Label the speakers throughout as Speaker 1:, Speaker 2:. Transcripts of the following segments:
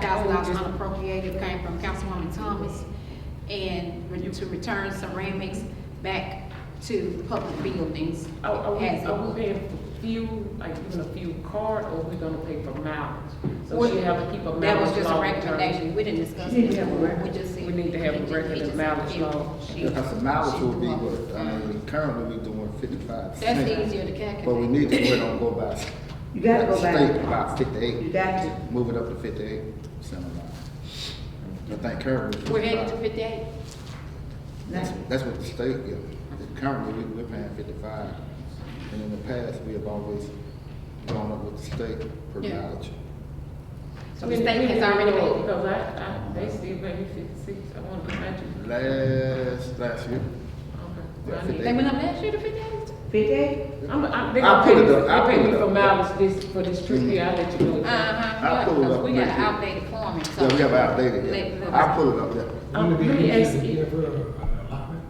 Speaker 1: thousand dollars unappropriated came from Councilwoman Thomas and re- to return ceramics back to public buildings.
Speaker 2: Are, are we,
Speaker 1: as a
Speaker 2: are
Speaker 1: wood.
Speaker 2: we paying for fuel, like even a fuel card, or we gonna pay for mileage? So
Speaker 1: Well,
Speaker 2: she have to keep a mileage long term.
Speaker 1: That was just a recommendation, we didn't discuss
Speaker 2: She didn't
Speaker 1: this,
Speaker 2: have a
Speaker 1: before. we
Speaker 2: record.
Speaker 1: just said.
Speaker 2: We need to have a
Speaker 1: just-
Speaker 2: record
Speaker 1: we
Speaker 2: of
Speaker 1: just-
Speaker 2: mileage law.
Speaker 1: she-
Speaker 3: Because the mileage
Speaker 1: she
Speaker 3: will be
Speaker 1: grew up.
Speaker 3: what, I mean, currently we doing fifty-five.
Speaker 1: That's easier to calculate.
Speaker 3: But we need to, we don't go by.
Speaker 4: You gotta go by-
Speaker 3: State about
Speaker 4: You
Speaker 3: fifty-eight,
Speaker 4: got to,
Speaker 3: move it up to fifty-eight, something like that. I think currently.
Speaker 1: We're headed
Speaker 3: headed
Speaker 1: to fifty-eight?
Speaker 3: That's,
Speaker 4: now,
Speaker 3: that's what the state, yeah, currently we, we're paying fifty-five, and in the past, we have always gone up with the state per
Speaker 1: Yeah.
Speaker 3: mileage.
Speaker 1: So the state has already made it.
Speaker 2: Because I, I, they still pay me fifty-six, I wanna be matching.
Speaker 3: Last, last year,
Speaker 2: Okay.
Speaker 3: Yeah,
Speaker 2: I need-
Speaker 1: They went up last year to fifty-eight?
Speaker 4: fifty-eight?
Speaker 2: I'm, I'm, they gonna
Speaker 3: I'll
Speaker 2: pay
Speaker 3: put
Speaker 2: me,
Speaker 3: it up. I'll
Speaker 2: they pay
Speaker 3: put
Speaker 2: me
Speaker 3: it
Speaker 2: for
Speaker 3: up.
Speaker 2: mileage this, for this trip here, I'll let you know.
Speaker 1: Uh-huh,
Speaker 3: I'll pull it
Speaker 1: because
Speaker 3: up
Speaker 1: we
Speaker 3: and
Speaker 1: got
Speaker 3: make
Speaker 1: an
Speaker 3: it-
Speaker 1: outdated form. so-
Speaker 3: yeah, we have outdated,
Speaker 1: Let-
Speaker 3: yeah,
Speaker 1: let-
Speaker 3: I pull it up there,
Speaker 2: Um,
Speaker 5: Wouldn't it
Speaker 2: let
Speaker 5: be
Speaker 2: me
Speaker 5: easier
Speaker 2: ask
Speaker 5: to
Speaker 2: you,
Speaker 5: give her a- a allotment?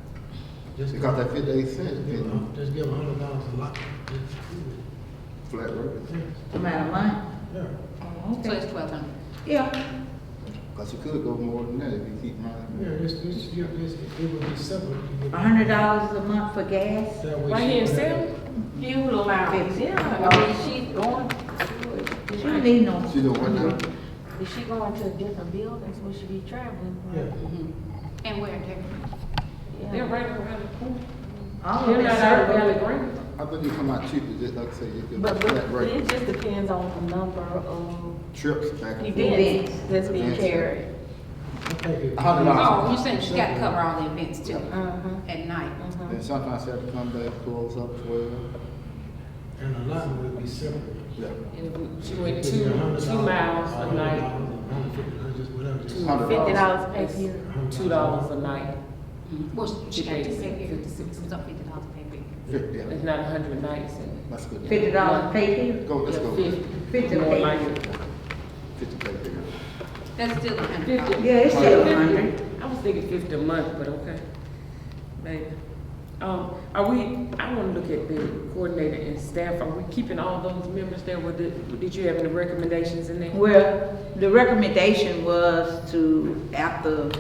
Speaker 5: Just
Speaker 3: because that fifty-eight
Speaker 5: give
Speaker 3: cent,
Speaker 5: her-
Speaker 3: been
Speaker 5: Just give a hundred dollars allotment. Just do
Speaker 3: flat rate.
Speaker 5: it.
Speaker 4: Amount of month?
Speaker 5: Yeah.
Speaker 4: Oh,
Speaker 1: So
Speaker 4: okay.
Speaker 1: it's twelve hundred.
Speaker 4: Yeah,
Speaker 3: Cause you could go more than that if you keep running.
Speaker 5: Yeah, this, this, yeah, this, it would be simple. if you could-
Speaker 4: a hundred dollars a month for gas?
Speaker 5: That way
Speaker 2: right
Speaker 5: she
Speaker 2: here in
Speaker 5: would have-
Speaker 2: Salem?
Speaker 6: Fuel allowance,
Speaker 4: Fifty.
Speaker 6: yeah, I mean, she's going,
Speaker 4: She don't need no.
Speaker 3: She doing what now?
Speaker 6: is she going to different buildings, will she be traveling?
Speaker 5: Yeah.
Speaker 1: And we're different.
Speaker 2: They're right around the corner.
Speaker 4: All of
Speaker 2: They're
Speaker 4: Oh, it
Speaker 2: not out of Valley
Speaker 4: served.
Speaker 2: Green.
Speaker 3: I thought you come out cheaper, just like I said, you could
Speaker 6: But,
Speaker 3: flat
Speaker 6: but
Speaker 3: rate,
Speaker 6: it just depends on the number of
Speaker 3: trips back and forth.
Speaker 6: events that's being
Speaker 3: Events.
Speaker 6: carried.
Speaker 5: I think it-
Speaker 3: A hundred
Speaker 1: Oh,
Speaker 3: dollars,
Speaker 1: you said she gotta cover all the events too,
Speaker 6: Uh-huh,
Speaker 1: at night.
Speaker 6: uh-huh.
Speaker 3: and sometimes you have to come back, close up twelve,
Speaker 5: And allotment would be separate.
Speaker 3: yeah.
Speaker 2: And she went
Speaker 5: It could be
Speaker 2: two,
Speaker 5: a hundred
Speaker 2: two
Speaker 5: dollars,
Speaker 2: miles a
Speaker 5: hundred
Speaker 2: night.
Speaker 5: dollars, a hundred fifty, or just whatever, just-
Speaker 3: Hundred
Speaker 6: Fifty dollars per year.
Speaker 5: a hundred
Speaker 2: two dollars a night.
Speaker 1: Mhm. Well, she got to
Speaker 2: Fifty-eight.
Speaker 1: pay fifty-six, it was up fifty dollars pay period.
Speaker 3: Fifty, yeah,
Speaker 2: It's not a hundred nights.
Speaker 3: that's good.
Speaker 4: Fifty dollars pay here?
Speaker 3: Go, let's go,
Speaker 2: Fifty.
Speaker 4: Fifty.
Speaker 2: More like it.
Speaker 3: fifty, take care.
Speaker 1: That's still a hundred
Speaker 2: Fifty.
Speaker 1: dollars.
Speaker 4: Yeah, it's still a hundred.
Speaker 2: I was thinking fifty a month, but okay. Maybe. Um, are we, I wanna look at the coordinator and staff, are we keeping all those members there? Were the, did you have any recommendations in there?
Speaker 4: Well, the recommendation was to, after,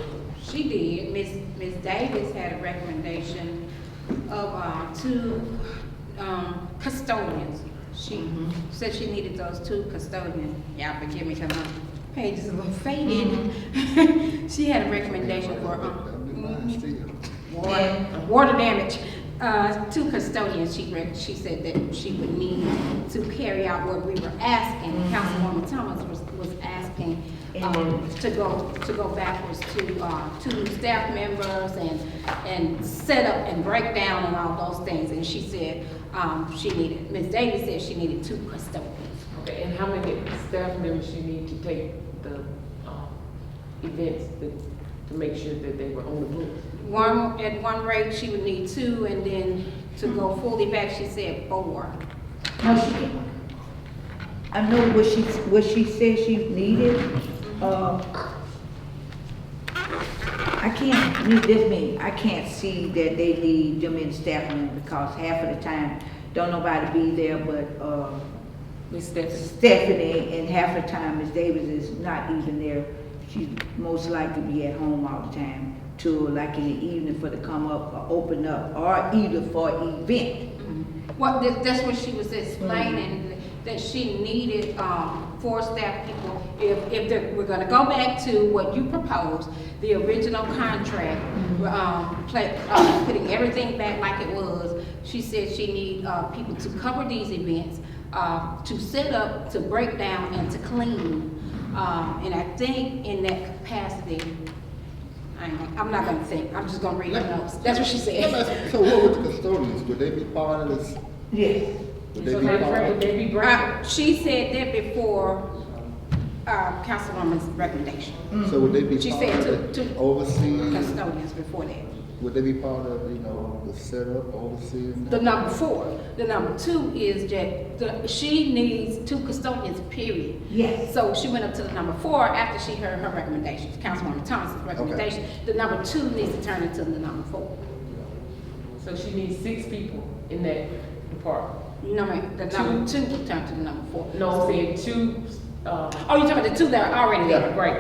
Speaker 1: She did. Ms. Ms. Davis had a recommendation of, um, two, um, custodians. She said she needed those two custodians. Y'all forgive me, cause my page is a little faded. She had a recommendation for, um, mhm. water, water damage. Uh, two custodians, she, rec- she said that she would need to carry out what we were asking. Councilwoman Thomas was, was asking, um, to go, to go backwards to, uh, two staff members and, and set up and break down and all those things. And she said, um, she needed, Ms. Davis said she needed two custodians.
Speaker 2: Okay, and how many staff members you need to take the, um, events that, to make sure that they were on the books?
Speaker 1: One, at one rate, she would need two, and then to go fully back, she said four.
Speaker 4: no, she, I know what she, what she said she needed, uh, I can't, need this many, I can't see that they need them in staff room because half of the time, don't nobody be there but, uh,
Speaker 2: Ms. Stephanie?
Speaker 4: Stephanie, and half the time Ms. Davis is not even there. She most likely be at home all the time till like in the evening for to come up or open up or either for event.
Speaker 1: Well, that, that's what she was explaining, that she needed, um, four staff people. If, if they're, we're gonna go back to what you proposed, the original contract, um, pla- uh, putting everything back like it was. She said she need, uh, people to cover these events, uh, to set up, to break down, and to clean. Um, and I think in that capacity, I ain't, gonna- I'm not gonna think, I'm just gonna read the notes. That's what she said.
Speaker 3: So what would the custodians, would they be part of this?
Speaker 4: Yes.
Speaker 3: Would they
Speaker 2: So
Speaker 3: be
Speaker 2: they,
Speaker 3: part
Speaker 2: break-
Speaker 3: of?
Speaker 2: they be breaking?
Speaker 1: Uh, She said that before, uh, Councilwoman's recommendation,
Speaker 3: So would they be
Speaker 1: She
Speaker 3: part
Speaker 1: said
Speaker 3: of
Speaker 1: to-
Speaker 3: the
Speaker 1: to-
Speaker 3: overseeing?
Speaker 1: custodians before that.
Speaker 3: Would they be part of, you know, the setup, overseeing?
Speaker 1: The number four, the number two is that the, she needs two custodians, period.
Speaker 4: Yes.
Speaker 1: So she went up to the number four after she heard her recommendations, Councilwoman Thomas's recommendation. The number two needs to turn into the number four.
Speaker 2: So she needs six people in that department.
Speaker 1: No, ma'am, the number two will turn to the number four.
Speaker 2: No, I'm saying two,
Speaker 1: uh,
Speaker 2: Oh, you're talking about the two that are already there?
Speaker 1: Yeah, right.